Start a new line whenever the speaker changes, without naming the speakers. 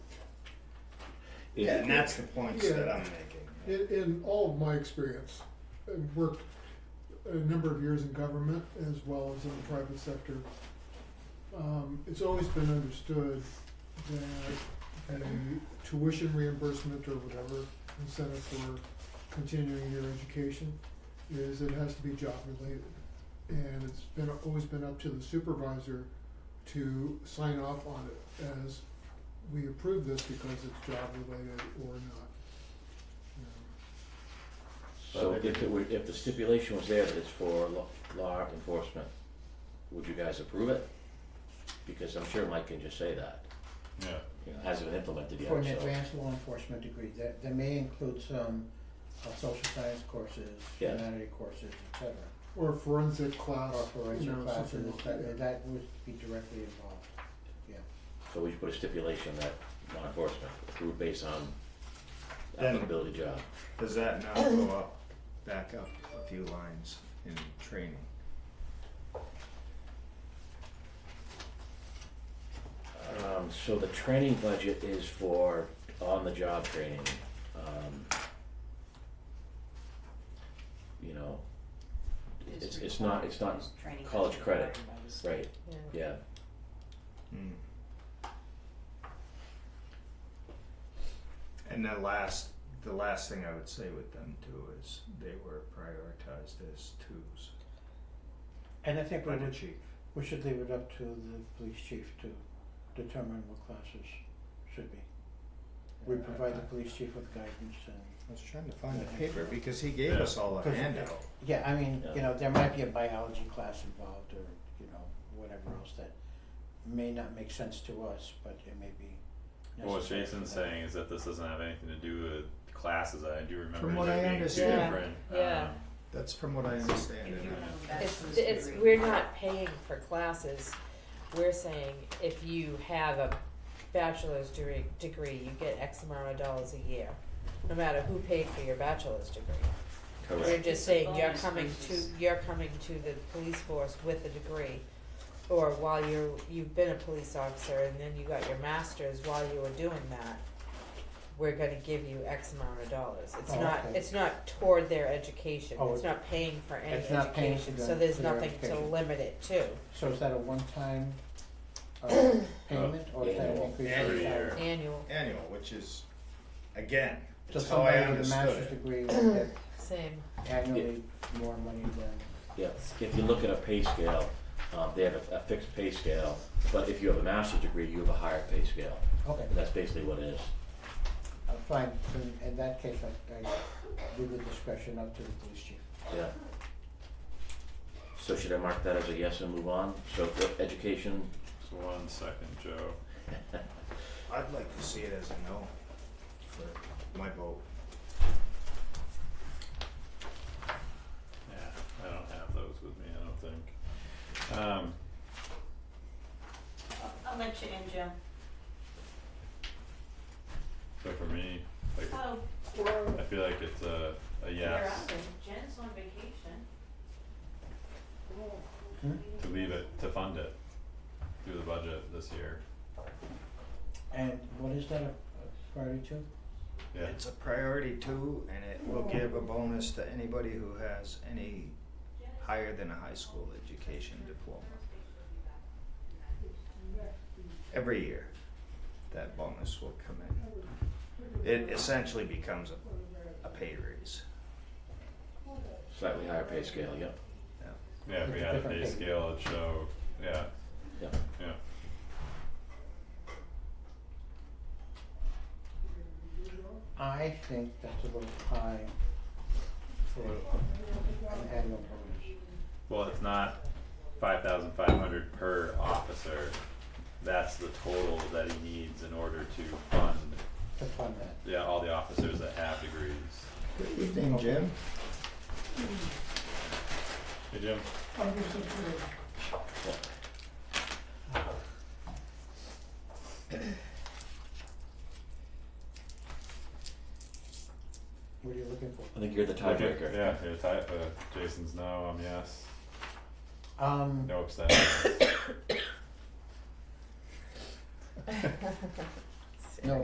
If-
Yeah, and that's the points
Yeah.
that I'm making.
In, in all of my experience, I've worked a number of years in government as well as in the private sector. Um, it's always been understood that a tuition reimbursement or whatever incentive for continuing your education is it has to be job related. And it's been, always been up to the supervisor to sign off on it as we approve this because it's job related or not. you know.
So if it were, if the stipulation was there that it's for law, law enforcement, would you guys approve it? Because I'm sure Mike can just say that,
Yeah.
you know, hasn't been implemented yet,
For an
so,
advanced law enforcement degree, that, that may include some uh, social science courses,
Yeah.
humanity courses, et cetera.
Or forensic class,
Or
you
forensic
know, something
classes,
like
that,
that.
that would be directly involved, yeah.
so we should put a stipulation that law enforcement approved based on
Then-
applicability job.
Does that not go up, back up a few lines in training?
Um, so the training budget is for on-the-job training, um. You know, it's, it's not, it's not college credit, right, yeah,
Mm. And the last, the last thing I would say with them too is they were prioritized as twos
And I think we
by the
would,
chief.
we should leave it up to the police chief to determine what classes should be. We
Yeah, I-
provide the
I-
police chief with guidance and,
I was trying to find the paper because he gave us all a
Yeah.
handout.
yeah, I mean,
Yeah.
you know, there might be a biology class involved or, you know, whatever else that may not make sense to us, but it may be necessary.
Well, what Jason's
for them.
saying is that this doesn't have anything to do with classes. I do remember
From what
there
I
being two
understand.
different.
Yeah. Yeah.
um,
That's from what I understand. and I-
It's, it's, we're not paying for classes, we're saying if you have a bachelor's degree, degree, you get X amount of dollars a year. No matter who paid for your bachelor's degree, we're
correct,
just saying you're
Bonus
coming to,
versus-
you're coming to the police force with a degree. Or while you're, you've been a police officer and then you got your master's while you were doing that, we're gonna give you X amount of dollars, it's
Oh,
not,
okay.
it's not toward their education,
Oh,
it's
it-
not paying for any
It's not paying
education,
for
so
them-
there's
for their
nothing to
education.
limit it to.
So is that a one-time uh, payment or is that an
Annual.
increase in
Every
salary?
year.
Annual,
Annual, which is, again,
So
it's how I
somebody with a
understood
master's
it.
degree will get
same,
annually more money than,
yeah, if you look at a pay scale, um, they have a, a fixed pay scale, but if you have a master's degree, you have a higher pay scale,
okay,
and that's basically what it is.
uh, fine, then in that case, I, I leave the discretion up to the police chief.
Yeah. So should I mark that as a yes and move on? So for education,
so one second, Joe.
I'd like to see it as a no for my vote.
Yeah, I don't have those with me. I don't think. Um,
I'll let you in, Jim.
so for me, like,
Oh,
I feel like it's a, a
you're
yes
out. Jen's on vacation.
to leave it to fund it through the budget this year.
And what is that a a priority to?
Yeah.
It's a priority too, and it will give a bonus to anybody who has any higher than a high school education diploma. Every year, that bonus will come in. It essentially becomes a, a pay raise.
slightly higher pay scale, yep,
Yeah.
Yeah, if we
It's a
had a
different
pay
thing.
scale, it'd show, yeah,
yep.
yeah.
I think that's a little high for an annual bonus.
Well, it's not five thousand five hundred per officer. That's the total that he needs in order to fund,
to fund that.
yeah, all the officers that have degrees.
Good evening, Jim.
Hey, Jim?
What are you looking for?
I think you're the tiebreaker.
Yeah, you're tie, uh, Jason's no, I'm yes,
Um,
no abstentions.